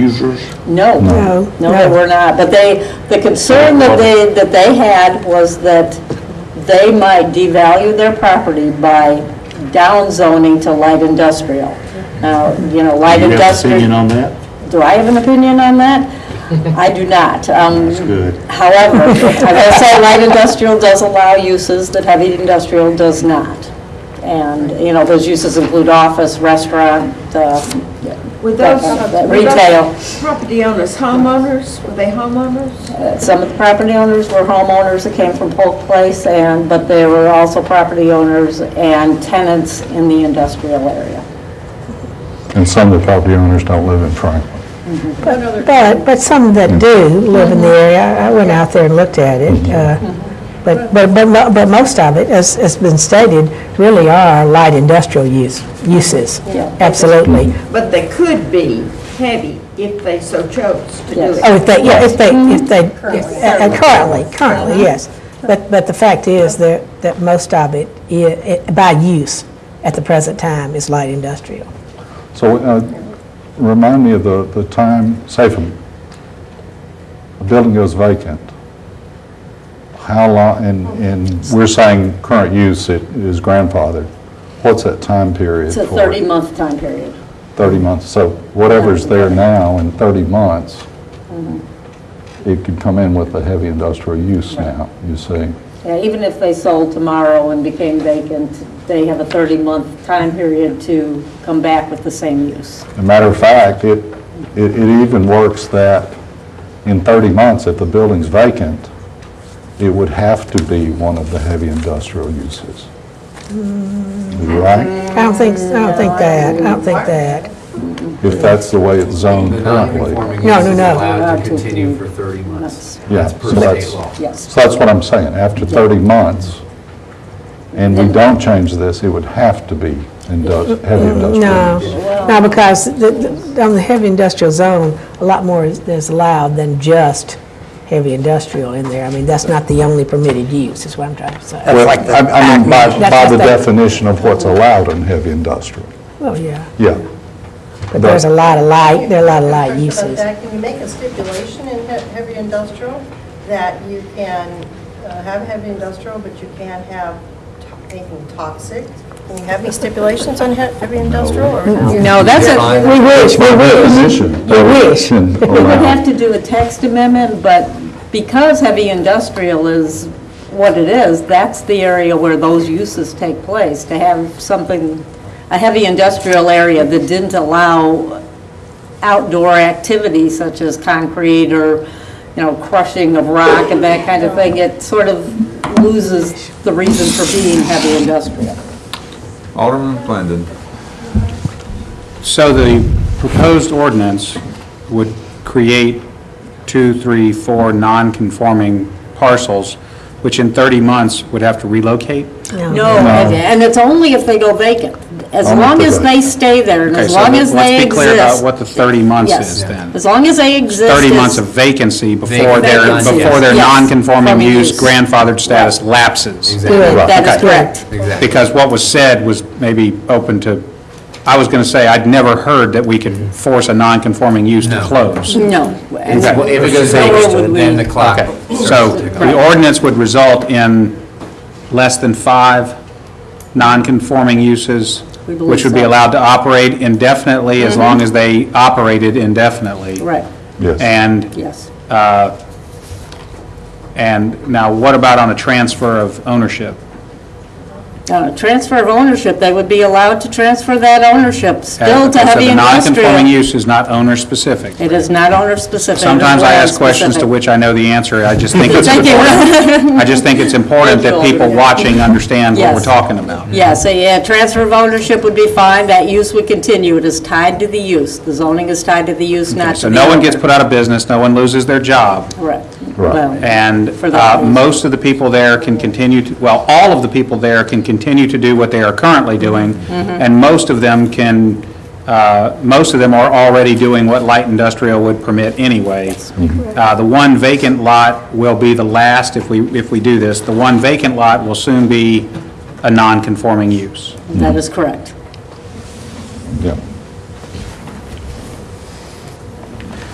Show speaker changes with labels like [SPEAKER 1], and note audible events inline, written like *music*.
[SPEAKER 1] users?
[SPEAKER 2] No.
[SPEAKER 3] No.
[SPEAKER 2] No,
[SPEAKER 3] No.
[SPEAKER 2] they were not. But they, the concern that they, that they had was that they might devalue their property by downzoning to light industrial. Now, you know, light
[SPEAKER 1] Do you have an
[SPEAKER 2] industrial.
[SPEAKER 1] opinion on that?
[SPEAKER 2] Do I have an opinion on that? I do not. That's
[SPEAKER 1] good.
[SPEAKER 2] However, I will say light industrial does allow uses that heavy industrial does not. And, you know, those uses include office, restaurant, uh,
[SPEAKER 4] Were
[SPEAKER 2] that
[SPEAKER 4] those?
[SPEAKER 2] kind of- that
[SPEAKER 4] were those
[SPEAKER 2] retail.
[SPEAKER 4] Property owners, homeowners, were they homeowners?
[SPEAKER 2] Uh, Some of the property owners were homeowners that came from Polk Place, and, but there were also property owners and tenants in the industrial area.
[SPEAKER 5] And some of the property owners don't live in Franklin.
[SPEAKER 3] But, but some that do live in the area, I I went out there and looked at it, uh, but, but, but mo- but most of it, as has been stated, really are light industrial use, uses.
[SPEAKER 2] Yeah.
[SPEAKER 3] Absolutely.
[SPEAKER 4] But they could be heavy if they so chose to do
[SPEAKER 2] Yes.
[SPEAKER 4] it.
[SPEAKER 3] Oh, if they, yeah, if they, if they, uh, uh, currently, currently, yes. But, but the fact is that, that most of it, i- it- by use at the present time, is light industrial.
[SPEAKER 5] So uh, remind me of the, the time, Safem, a building goes vacant. How long, and, and we're saying current use it is grandfathered. What's that time period
[SPEAKER 2] It's
[SPEAKER 5] for?
[SPEAKER 2] a 30-month time period.
[SPEAKER 5] 30 months. So whatever's there now in 30 months, it could come in with a heavy industrial use now, you see.
[SPEAKER 2] Yeah, even if they sold tomorrow and became vacant, they have a 30-month time period to come back with the same use.
[SPEAKER 5] As a matter of fact, it, it it even works that in 30 months, if the building's vacant, it would have to be one of the heavy industrial uses. Right?
[SPEAKER 3] I don't think, I don't think that, I don't think that.
[SPEAKER 5] If that's the way it's zoned
[SPEAKER 6] The
[SPEAKER 5] currently.
[SPEAKER 6] non-conforming
[SPEAKER 3] No,
[SPEAKER 6] use
[SPEAKER 3] no,
[SPEAKER 6] is
[SPEAKER 3] no.
[SPEAKER 6] allowed
[SPEAKER 2] Allowed
[SPEAKER 6] to
[SPEAKER 2] to
[SPEAKER 6] continue
[SPEAKER 2] do-
[SPEAKER 6] for 30 months.
[SPEAKER 5] Yeah,
[SPEAKER 6] That's per
[SPEAKER 5] so
[SPEAKER 6] state
[SPEAKER 5] that's-
[SPEAKER 6] law.
[SPEAKER 2] Yes.
[SPEAKER 5] So that's what I'm saying, after 30 months, and we don't change this, it would have to be indu- heavy
[SPEAKER 3] No,
[SPEAKER 5] industrial use.
[SPEAKER 3] no, because the- the- on the heavy industrial zone, a lot more is is allowed than just heavy industrial in there. I mean, that's not the only permitted use, is what I'm trying to say.
[SPEAKER 5] Well, I I mean, by,
[SPEAKER 3] That's
[SPEAKER 5] by the
[SPEAKER 3] just that-
[SPEAKER 5] definition of what's allowed in heavy industrial,
[SPEAKER 3] Well, yeah,
[SPEAKER 5] yeah.
[SPEAKER 3] but there's a lot of light, there are a lot of light
[SPEAKER 7] Question about
[SPEAKER 3] uses.
[SPEAKER 7] that. Can you make a stipulation in he- heavy industrial that you can uh, have heavy industrial, but you can't have to- anything toxic? Can you have any stipulations on he- heavy industrial or no?
[SPEAKER 3] No, that's
[SPEAKER 6] Fine.
[SPEAKER 3] We wish, we wish.
[SPEAKER 5] Definition.
[SPEAKER 3] We
[SPEAKER 5] *laughs*
[SPEAKER 3] wish.
[SPEAKER 5] Definition
[SPEAKER 2] We would
[SPEAKER 5] allowed.
[SPEAKER 2] have to do a text amendment, but because heavy industrial is what it is, that's the area where those uses take place. To have something, a heavy industrial area that didn't allow outdoor activities such as concrete or, you know, crushing of rock and that kind of thing, it sort of loses the reason for being heavy industrial.
[SPEAKER 8] Alderman Glendon.
[SPEAKER 9] So the proposed ordinance would create two, three, four non-conforming parcels, which in 30 months would have to relocate?
[SPEAKER 2] No, and it's only if they go vacant. As
[SPEAKER 5] Only if
[SPEAKER 2] long
[SPEAKER 5] they
[SPEAKER 2] as
[SPEAKER 5] go
[SPEAKER 2] they stay there and
[SPEAKER 9] Okay,
[SPEAKER 2] as
[SPEAKER 9] so
[SPEAKER 2] long as they
[SPEAKER 9] Let's be
[SPEAKER 2] exist.
[SPEAKER 9] clear about what the 30 months
[SPEAKER 2] Yes.
[SPEAKER 9] is then.
[SPEAKER 2] As long as they exist.
[SPEAKER 9] 30
[SPEAKER 2] as-
[SPEAKER 9] months of vacancy before their,
[SPEAKER 6] Vacancy,
[SPEAKER 9] before their
[SPEAKER 2] yes.
[SPEAKER 9] non-conforming
[SPEAKER 2] Conforming
[SPEAKER 9] use
[SPEAKER 2] use.
[SPEAKER 9] grandfathered status lapses.
[SPEAKER 6] Exactly.
[SPEAKER 2] That is
[SPEAKER 9] Okay.
[SPEAKER 2] correct.
[SPEAKER 6] Exactly.
[SPEAKER 9] Because what was said was maybe open to, I was going to say, I'd never heard that we could force a non-conforming use to
[SPEAKER 6] No.
[SPEAKER 9] close.
[SPEAKER 2] No.
[SPEAKER 6] Well, If it goes
[SPEAKER 2] So where
[SPEAKER 6] vacant,
[SPEAKER 2] would
[SPEAKER 6] then
[SPEAKER 2] we-
[SPEAKER 6] the clock.
[SPEAKER 9] So the ordinance would result in less than five non-conforming uses,
[SPEAKER 2] We believe
[SPEAKER 9] which would be
[SPEAKER 2] so. Mm-hmm.
[SPEAKER 9] allowed to operate indefinitely as long as they operated indefinitely.
[SPEAKER 2] Right,
[SPEAKER 5] Yes.
[SPEAKER 9] And,
[SPEAKER 2] yes.
[SPEAKER 9] and now what about on a transfer of ownership?
[SPEAKER 2] Uh, Transfer of ownership, they would be allowed to transfer that ownership still to
[SPEAKER 9] Okay, so
[SPEAKER 2] heavy
[SPEAKER 9] The non-conforming
[SPEAKER 2] industrial.
[SPEAKER 9] use is not owner-specific.
[SPEAKER 2] It is not owner-specific.
[SPEAKER 9] Sometimes I ask
[SPEAKER 2] landlord-specific.
[SPEAKER 9] questions to which I know the answer, I just think
[SPEAKER 2] *laughs*
[SPEAKER 9] it's
[SPEAKER 2] Thank
[SPEAKER 9] important.
[SPEAKER 2] you.
[SPEAKER 9] I just think it's important that people watching understand what we're
[SPEAKER 2] Yes.
[SPEAKER 9] talking about.
[SPEAKER 2] Yeah, so yeah, transfer of ownership would be fine, that use would continue, it is tied to the use. The zoning is tied to the use, not to
[SPEAKER 9] So
[SPEAKER 2] the
[SPEAKER 9] no one
[SPEAKER 2] owner.
[SPEAKER 9] gets put out of business, no one loses their job.
[SPEAKER 2] Correct.
[SPEAKER 5] Right.
[SPEAKER 2] Well,
[SPEAKER 9] Um, And
[SPEAKER 2] For that
[SPEAKER 9] uh,
[SPEAKER 2] reason.
[SPEAKER 9] most of the people there can continue, to well, all of the people there can continue to do what they are currently doing, and most of them can, uh, most of them are already doing what light industrial would permit anyway. Uh, The one vacant lot will be the last, if we, if we do this, the one vacant lot will soon be a non-conforming use.
[SPEAKER 2] That is correct.
[SPEAKER 5] Yeah.